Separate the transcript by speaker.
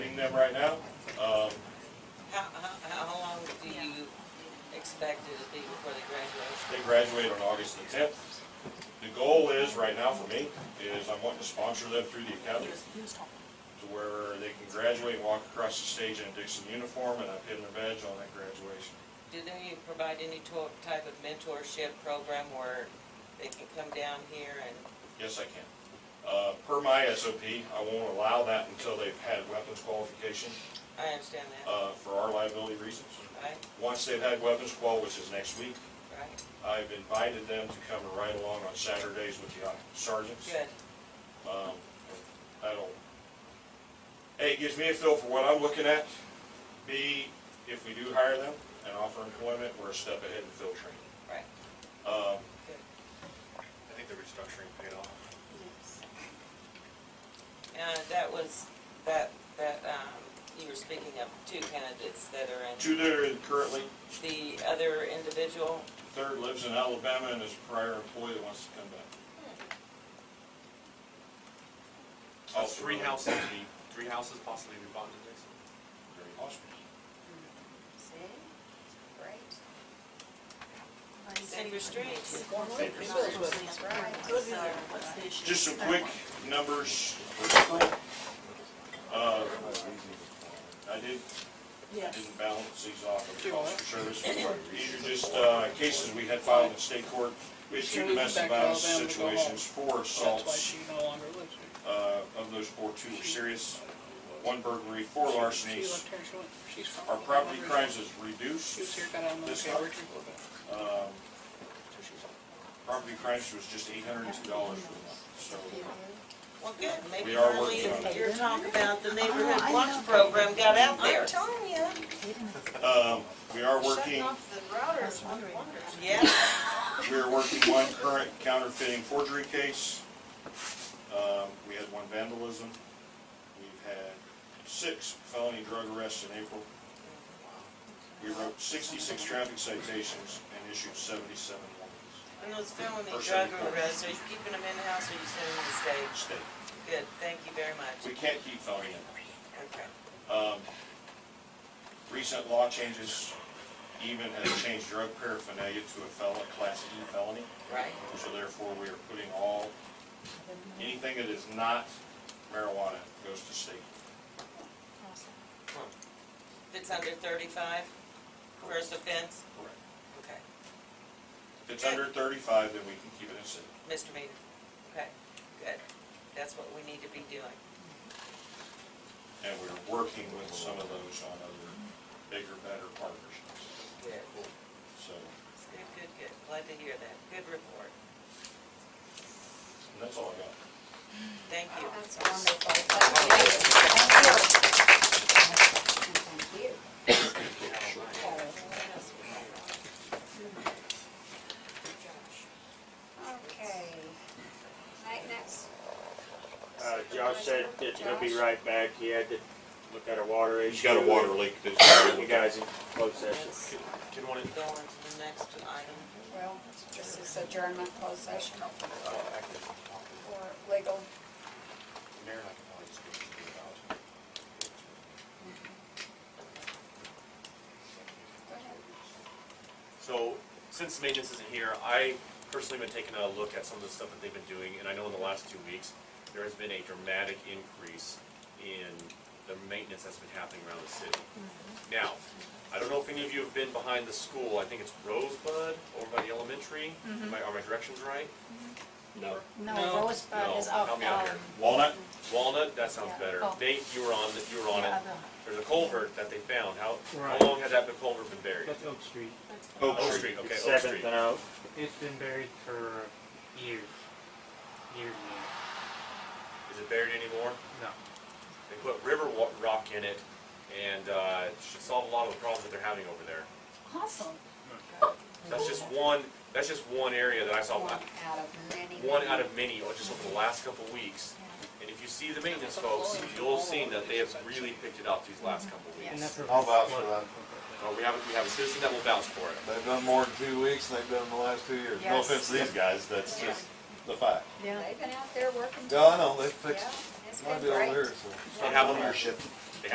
Speaker 1: between them right now. Um,
Speaker 2: How, how, how long do you expect it to be before they graduate?
Speaker 1: They graduate on August the tenth. The goal is, right now for me, is I'm wanting to sponsor them through the academy to where they can graduate, and walk across the stage in a Dixon uniform, and I pin their badge on at graduation.
Speaker 2: Do they provide any to- type of mentorship program where they can come down here and,
Speaker 1: Yes, I can. Uh, Per my SOP, I won't allow that until they've had weapons qualification
Speaker 2: I understand that,
Speaker 1: uh, for our liability reasons.
Speaker 2: right,
Speaker 1: Once they've had weapons qual, which is next week,
Speaker 2: right,
Speaker 1: I've invited them to come and ride along on Saturdays with the sergeants.
Speaker 2: good,
Speaker 1: Um, That'll, A, it gives me a feel for what I'm looking at. B, if we do hire them and offer employment, we're a step ahead in field training.
Speaker 2: right,
Speaker 1: Um,
Speaker 2: good.
Speaker 3: I think the restructuring paid off.
Speaker 2: And that was, that, that, um, you were speaking of two candidates that are in,
Speaker 1: Two that are currently,
Speaker 2: the other individual,
Speaker 1: third lives in Alabama and is a prior employee that wants to come back.
Speaker 3: Oh, three houses, we, three houses possibly we bought in Dixon.
Speaker 1: Very possible.
Speaker 4: See? Great.
Speaker 5: Uh,
Speaker 2: Save Your Streets.
Speaker 3: Save your
Speaker 4: That's right.
Speaker 1: Just some quick numbers for April. Uh, I did, I didn't balance these off of the cost of service. These are just uh, cases we had filed in state court. We had two domestic violence situations, four
Speaker 6: That's why
Speaker 1: assaults.
Speaker 6: she no longer lives here.
Speaker 1: Uh, Of those four, two were serious, one burglary, four
Speaker 6: She- She
Speaker 1: larcenies.
Speaker 6: left here, she went, she's from.
Speaker 1: Our property crimes is
Speaker 6: She was
Speaker 1: reduced.
Speaker 6: here, got out of the
Speaker 1: This month.
Speaker 6: military, worked here for a little bit.
Speaker 1: Um,
Speaker 6: So she's all-
Speaker 1: Property crimes was just eight hundred and two dollars for the month, so.
Speaker 2: well, good, maybe
Speaker 1: We are
Speaker 2: finally
Speaker 1: working on it.
Speaker 2: your talk about the neighborhood
Speaker 7: Oh, I
Speaker 2: watch
Speaker 7: know.
Speaker 2: program got out there.
Speaker 4: I'm telling you,
Speaker 1: um, We are working.
Speaker 4: shutting off the routers, one wonders.
Speaker 2: Yeah,
Speaker 1: We're working one current counterfeiting forgery case. Um, We had one vandalism. We've had six felony drug arrests in April. We wrote sixty-six traffic citations and issued seventy-seven warnings.
Speaker 2: and those felony drug
Speaker 1: Person reports.
Speaker 2: arrests, are you keeping them in-house or are you sending them to state?
Speaker 1: State,
Speaker 2: Good, thank you very much.
Speaker 1: we can't keep felony numbers.
Speaker 2: Okay.
Speaker 1: Um, Recent law changes even has changed drug paraphernalia to a felon, class E felony.
Speaker 2: Right,
Speaker 1: So therefore, we are putting all, anything that is not marijuana goes to state.
Speaker 2: if it's under thirty-five, first offense,
Speaker 1: Correct.
Speaker 2: okay,
Speaker 1: If it's under thirty-five, then we can keep it in city.
Speaker 2: misdemeanor, okay, good. That's what we need to be doing.
Speaker 1: And we're working with some of those on other bigger, better partnerships.
Speaker 2: Good.
Speaker 1: So,
Speaker 2: Good, good, good, glad to hear that, good report,
Speaker 1: and that's all I got.
Speaker 2: thank you.
Speaker 4: That's wonderful. Thank you. Okay. Night, next.
Speaker 5: Uh, Josh said that he'll be right back. He had to look at a water issue.
Speaker 1: leak that's.
Speaker 5: You guys in closed session.
Speaker 2: Let's
Speaker 3: Can one,
Speaker 2: go on to the next item.
Speaker 4: Well, this is adjournment closed session for legal. Go ahead.
Speaker 3: so, since maintenance isn't here, I personally been taking a look at some of the stuff that they've been doing, and I know in the last two weeks, there has been a dramatic increase in the maintenance that's been happening around the city.
Speaker 7: Mm-hmm.
Speaker 3: Now, I don't know if any of you have been behind the school, I think it's Rosebud over by the elementary,
Speaker 7: Mm-hmm.
Speaker 3: Am I- are my directions right? No.
Speaker 6: No.
Speaker 7: No, Rosebud
Speaker 3: No,
Speaker 7: is off.
Speaker 3: help me out
Speaker 7: um,
Speaker 3: here.
Speaker 1: Walnut,
Speaker 3: Walnut, that sounds
Speaker 7: Yeah.
Speaker 3: better.
Speaker 7: Oh.
Speaker 3: Nate, you were on, the- you were on it.
Speaker 7: yeah, the-
Speaker 3: There's a culvert that they found. How, how
Speaker 8: Right.
Speaker 3: long has that culvert been buried?
Speaker 8: That's Oak Street.
Speaker 1: Oak
Speaker 3: Oak
Speaker 1: Street.
Speaker 3: Street, okay, Oak
Speaker 5: Seventh
Speaker 3: Street.
Speaker 5: and Oak.
Speaker 8: It's been buried for years. Years and
Speaker 3: Is it buried anymore?
Speaker 8: years. No.
Speaker 3: They put river wa- rock in it and, uh, it should solve a lot of the problems that they're having over there.
Speaker 7: Awesome.
Speaker 3: That's just one, that's just one area that I saw,
Speaker 4: One out of many.
Speaker 3: Oh, one out of many, or just over the last couple of weeks. And if you see the maintenance folks, you'll have seen that they have really picked it up these last couple of
Speaker 7: Yeah.
Speaker 3: weeks.
Speaker 8: And that
Speaker 9: I'll
Speaker 8: provides
Speaker 9: vouch for
Speaker 8: one-
Speaker 9: that.
Speaker 3: Uh, we have, we have a citizen that will vouch for it.
Speaker 9: They've done more in two weeks than they've done in the last two years. No
Speaker 7: Yes.
Speaker 9: offense to these guys, that's
Speaker 4: Yeah.
Speaker 9: just the fact.
Speaker 7: Yeah.
Speaker 4: They've been out there working.
Speaker 9: No, I know, they
Speaker 4: Yeah,
Speaker 9: fixed
Speaker 4: it's
Speaker 9: my
Speaker 4: been
Speaker 9: deal
Speaker 4: great.
Speaker 9: here,
Speaker 3: They
Speaker 9: so.
Speaker 3: have them,
Speaker 9: Ownership.